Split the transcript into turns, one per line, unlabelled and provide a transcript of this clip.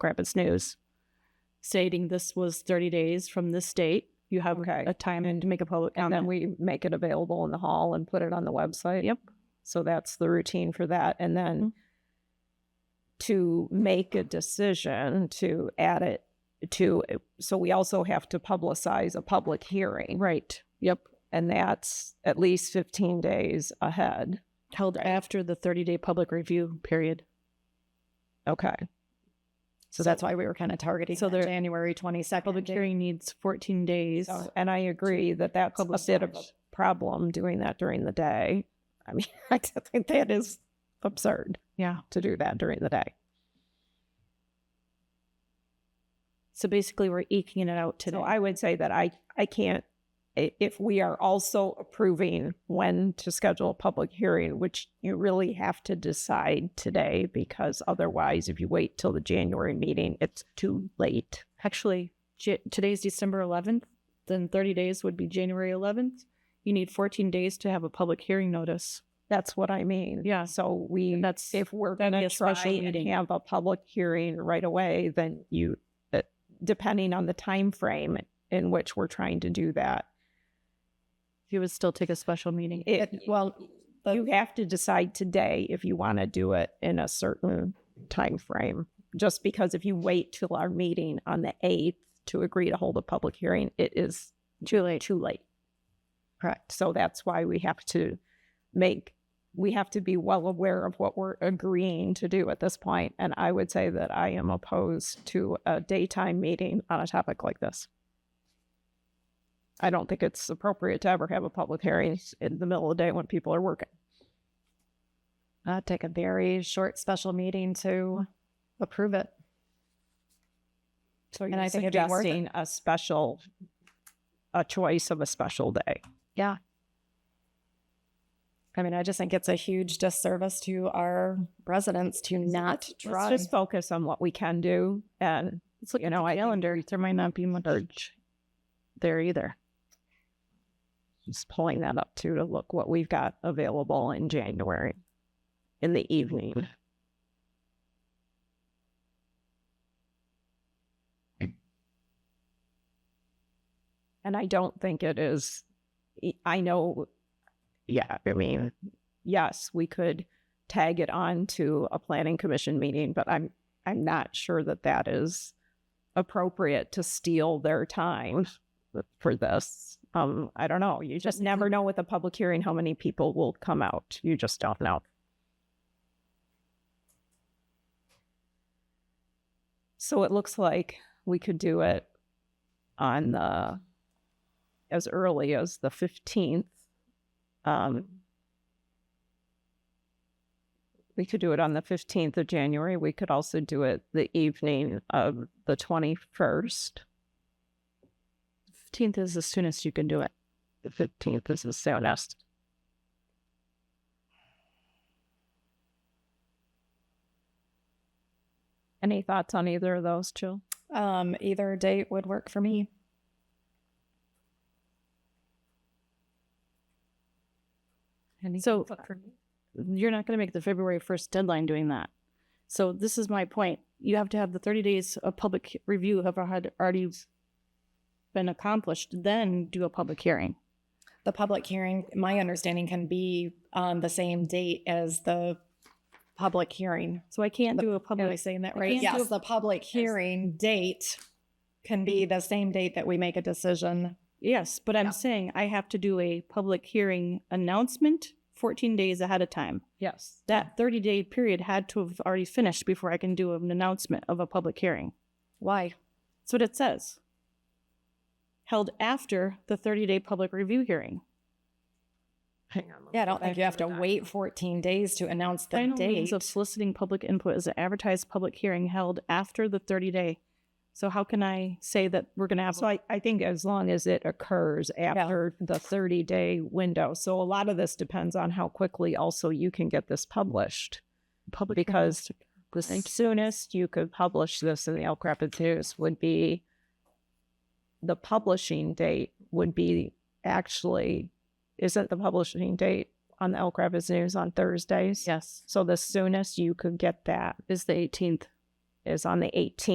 grab and snooze, stating this was 30 days from this date. You have
Okay.
a time
And-
to make a public
And then
comment.
we make it available in the hall and put it on the website.
Yep.
So that's the routine for that. And then
Mm-hmm.
to make a decision to add it to, so we also have to publicize a public hearing.
right. Yep.
And that's at least 15 days ahead.
Held after the 30 day public review period.
Okay.
So that's why we were kind of targeting
So
so
there-
January
Public
22nd.
hearing needs 14 days.
So, and I agree that that's a bit of a
publicize.
problem doing that during the day. I mean, I think that is absurd
Yeah.
to do that during the day.
So basically, we're eking it out today.
So I would say that I, I can't, i- if we are also approving when to schedule a public hearing, which you really have to decide today, because otherwise, if you wait till the January meeting, it's too late.
actually J- today's December 11th, then 30 days would be January 11th. You need 14 days to have a public hearing notice.
That's what I mean.
Yeah.
So we,
That's
if we're
that'd
going
be
to
a special
try and
meeting.
have a public hearing right away, then you, uh, depending on the time frame in which we're trying to do that,
you would still take a special meeting.
it,
well, the-
you have to decide today if you want to do it in a certain time frame. Just because if you wait till our meeting on the eighth to agree to hold a public hearing, it is
Too late.
too late.
correct.
So that's why we have to make, we have to be well aware of what we're agreeing to do at this point. And I would say that I am opposed to a daytime meeting on a topic like this. I don't think it's appropriate to ever have a public hearing in the middle of the day when people are working.
I'd take a very short special meeting to approve it.
So
And
you're
I think it'd be worth it.
suggesting a special, a choice of a special day.
Yeah. I mean, I just think it's a huge disservice to our residents to not
Let's
try.
just focus on what we can do and
Let's look
You
at
know,
the
I think-
calendar. There might not be much there either.
just pulling that up too to look what we've got available in January in the evening. And I don't think it is, e, I know, yeah, I mean, yes, we could tag it on to a planning commission meeting, but I'm, I'm not sure that that is appropriate to steal their time for this. Um, I don't know. You just never know with a public hearing how many people will come out. You just don't know. So it looks like we could do it on the as early as the fifteenth. Um, we could do it on the fifteenth of January. We could also do it the evening of the twenty first.
15th is the soonest you can do it.
the fifteenth is the soonest. Any thoughts on either of those, Jill?
Um, either date would work for me.
So you're not going to make the February 1st deadline doing that. So this is my point. You have to have the 30 days of public review have had already been accomplished, then do a public hearing.
The public hearing, my understanding can be on the same date as the public hearing.
So I can't do a
Am I
public.
saying that
I
right?
can't do
Yes,
a-
the public hearing date can
Mm-hmm.
be the same date that we make a decision.
Yes, but I'm
Yeah.
saying I have to do a public hearing announcement 14 days ahead of time.
Yes.
That 30 day period had to have already finished before I can do an announcement of a public hearing.
Why?
That's what it says. Held after the 30 day public review hearing.
Hang on. let me
Yeah, I
go
don't
back
think you have to
the
wait 14 days to announce the
Final means
date.
of soliciting public input is an advertised public hearing held after the 30 day. So how can I say that we're going to
doc.
have?
So I, I think as long as it occurs after the thirty day window. So a lot of this depends on how quickly also you can get this published.
public
because the
Thank you.
soonest you could publish this in the Elk Rapids News would be the publishing date would be actually isn't the publishing date on the Elk Rapids News on Thursdays?
yes
So the soonest you could get that
is the 18th.
is on the 18th.